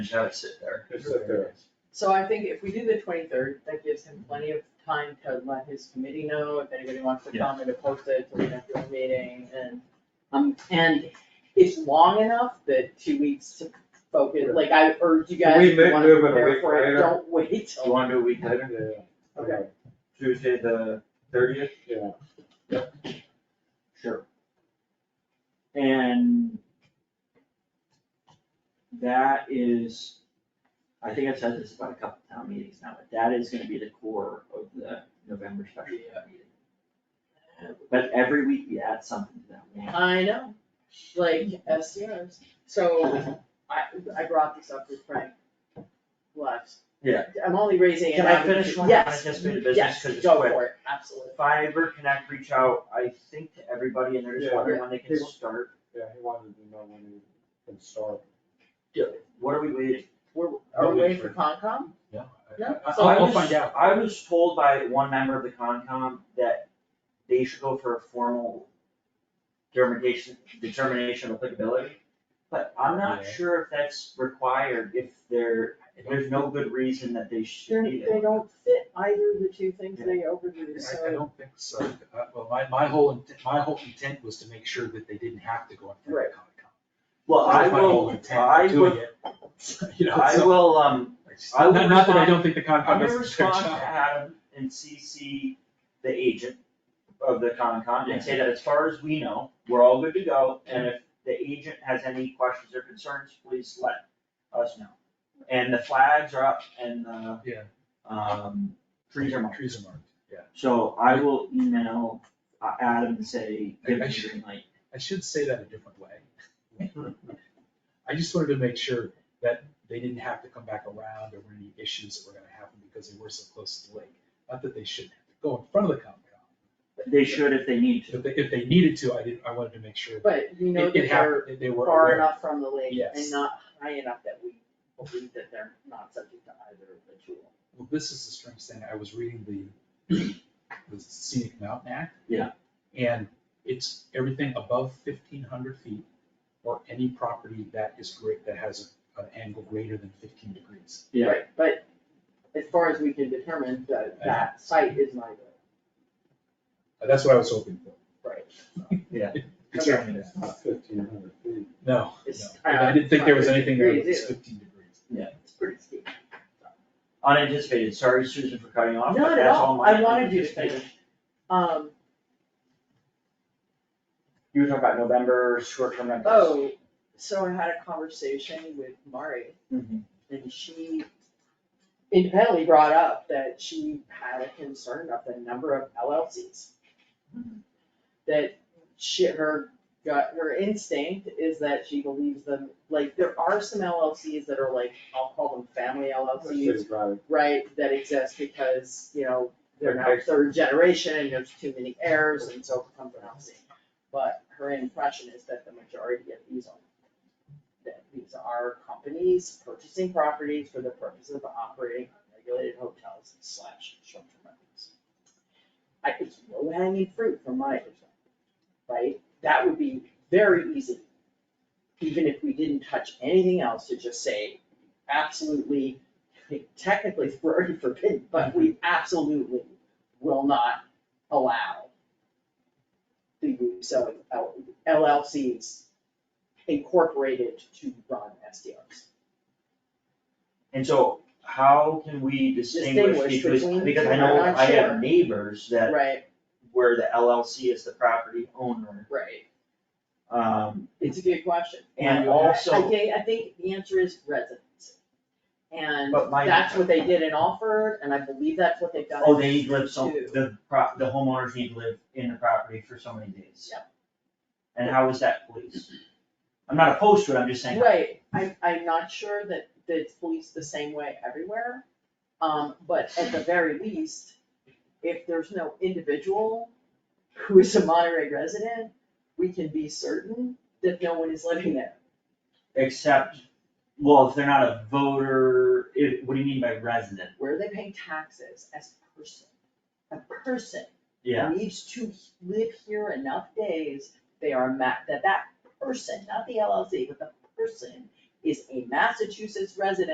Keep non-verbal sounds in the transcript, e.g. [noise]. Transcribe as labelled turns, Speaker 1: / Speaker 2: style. Speaker 1: Just have it sit there.
Speaker 2: Just sit there.
Speaker 3: So I think if we do the twenty-third, that gives him plenty of time to let his committee know if anybody wants to
Speaker 1: Yeah.
Speaker 3: come and to post it to the next meeting and, um, and it's long enough that two weeks to focus,
Speaker 2: Right.
Speaker 3: like I urge you guys,
Speaker 2: Can we
Speaker 3: if you
Speaker 2: make-
Speaker 3: wanna
Speaker 2: move it a
Speaker 3: prepare
Speaker 2: week
Speaker 3: for it,
Speaker 2: later?
Speaker 3: don't wait
Speaker 1: Do you
Speaker 3: till,
Speaker 1: wanna do a week later,
Speaker 2: Yeah.
Speaker 3: Okay.
Speaker 1: Tuesday the thirtieth?
Speaker 2: Yeah,
Speaker 1: Sure. And that is, I think I've said this about a couple town meetings now, but that is gonna be the core of the November special town meeting. But every week we add something to that one.
Speaker 3: I know, like SDRs. So I, I brought this up with Frank last.
Speaker 1: Yeah.
Speaker 3: I'm only raising it
Speaker 1: Can I
Speaker 3: now because-
Speaker 1: finish one on
Speaker 3: Yes,
Speaker 1: anticipated business? 'Cause it's
Speaker 3: Yes,
Speaker 1: quick.
Speaker 3: go for it, absolutely.
Speaker 1: Fiber Connect reach out, I think, to everybody and they're just
Speaker 2: Yeah.
Speaker 1: wondering when they can
Speaker 2: Yeah.
Speaker 1: start.
Speaker 2: yeah, he wanted to know when he can start.
Speaker 1: What are we waiting?
Speaker 3: We're,
Speaker 2: Oh,
Speaker 3: are we waiting for
Speaker 2: that's
Speaker 3: Concom?
Speaker 2: Yeah.
Speaker 3: Yeah.
Speaker 1: I-
Speaker 3: So
Speaker 1: I
Speaker 3: we'll
Speaker 1: was-
Speaker 3: find out.
Speaker 1: I was told by one member of the Concom that they should go for a formal determination, determination of applicability. But I'm not
Speaker 2: Yeah.
Speaker 1: sure if that's required, if there, if there's no good reason that they should
Speaker 3: They're,
Speaker 1: need
Speaker 3: they
Speaker 1: it.
Speaker 3: don't fit either of the two things they overdo,
Speaker 4: I, I
Speaker 3: so,
Speaker 4: don't think so, Uh, well, my, my whole, int- my whole intent was to make sure that they didn't have to go in front of Concom.
Speaker 1: Well, I
Speaker 4: That was my whole
Speaker 1: will,
Speaker 4: intent
Speaker 1: I
Speaker 4: of doing
Speaker 1: will,
Speaker 4: it. [laughs] You know,
Speaker 1: I
Speaker 4: so-
Speaker 1: will, um, I will
Speaker 4: Not, not that I
Speaker 1: respond-
Speaker 4: don't think the
Speaker 1: I'm
Speaker 4: Concom
Speaker 1: gonna
Speaker 4: is their
Speaker 1: respond to
Speaker 4: job.
Speaker 1: Adam and CC the agent of the Concom and say that as far as we know, we're all good to go. And if the agent has any questions or concerns, please let us know. And the flags are up and the
Speaker 4: Yeah.
Speaker 1: um trees are marked.
Speaker 4: Trees are marked, yeah.
Speaker 1: So I will email uh, Adam and say, give me the green light.
Speaker 4: I should say that a different way. [laughs] I just wanted to make sure that they didn't have to come back around or any issues that were gonna happen because they were so close to the lake. Not that they shouldn't have to go in front of the Concom.
Speaker 1: They should if they need to.
Speaker 4: If they, if they needed to, I didn't, I wanted to make sure that
Speaker 3: but you know that
Speaker 4: it, it
Speaker 3: they're
Speaker 4: happened, they were
Speaker 3: far
Speaker 4: aware.
Speaker 3: enough from the lake and
Speaker 4: Yes.
Speaker 3: not high enough that we believe that they're not subject to either of the two.
Speaker 4: Well, this is the strange thing, I was reading the, [clears throat] the Scenic Mountain Act.
Speaker 1: Yeah.
Speaker 4: And it's everything above fifteen hundred feet or any property that is great, that has an angle greater than fifteen degrees.
Speaker 1: Yeah.
Speaker 3: Right, but as far as we can determine, that, that site is neither,
Speaker 4: Uh, That's what I was hoping for.
Speaker 3: right?
Speaker 1: Yeah.
Speaker 4: Determine
Speaker 2: It's not fifteen hundred feet.
Speaker 4: No, no,
Speaker 3: It's-
Speaker 4: And I didn't think there was anything there that was
Speaker 3: Degrees, yeah.
Speaker 4: fifteen degrees.
Speaker 3: It's pretty steep.
Speaker 1: Unanticipated, sorry Susan for cutting you off, but
Speaker 3: Not at
Speaker 1: that's all
Speaker 3: all,
Speaker 1: my.
Speaker 3: I wanted you to finish. Um,
Speaker 1: You were talking about November short-term rentals.
Speaker 3: oh, so I had a conversation with Mari And she independently brought up that she had a concern about the number of LLCs. That she, her gut, her instinct is that she believes them, like, there are some LLCs that are like, I'll call them family LLCs,
Speaker 2: It's right.
Speaker 3: right? That exist because, you know, they're now
Speaker 2: Okay.
Speaker 3: third generation and there's too many heirs and so it becomes an LLC. But her impression is that the majority of these are that these are companies purchasing properties for the purpose of operating regulated hotels slash short-term rentals. I think low hanging fruit from my perspective, right? That would be very easy, even if we didn't touch anything else, to just say absolutely, technically [laughs] it's already forbidden, but we absolutely will not allow the use of L- LLCs incorporated to run SDRs.
Speaker 1: And so how can we distinguish
Speaker 3: Distinguish
Speaker 1: between,
Speaker 3: between
Speaker 1: because I
Speaker 3: two,
Speaker 1: know
Speaker 3: I'm not
Speaker 1: I have
Speaker 3: sure.
Speaker 1: neighbors that
Speaker 3: Right,
Speaker 1: where the LLC is the property owner.
Speaker 3: right.
Speaker 1: Um,
Speaker 3: It's a good question.
Speaker 1: and
Speaker 3: I
Speaker 1: also,
Speaker 3: think, I think the answer is residency. And
Speaker 1: But my-
Speaker 3: that's what they did in Alford, and I believe that's what they've done.
Speaker 1: oh, they live so,
Speaker 3: Two.
Speaker 1: the prop, the homeowners need to live in the property for so many days.
Speaker 3: Yep.
Speaker 1: And how is that policed? I'm not opposed to it, I'm just saying.
Speaker 3: Right, I, I'm not sure that, that it's policed the same way everywhere, um, but at the very least, if there's no individual who is a Monterey resident, we can be certain that no one is living there.
Speaker 1: Except, well, if they're not a voter, it, what do you mean by resident?
Speaker 3: Where are they paying taxes as a person? A person
Speaker 1: Yeah,
Speaker 3: needs to live here enough days, they are ma, that that person, not the LLC, but the person is a Massachusetts resident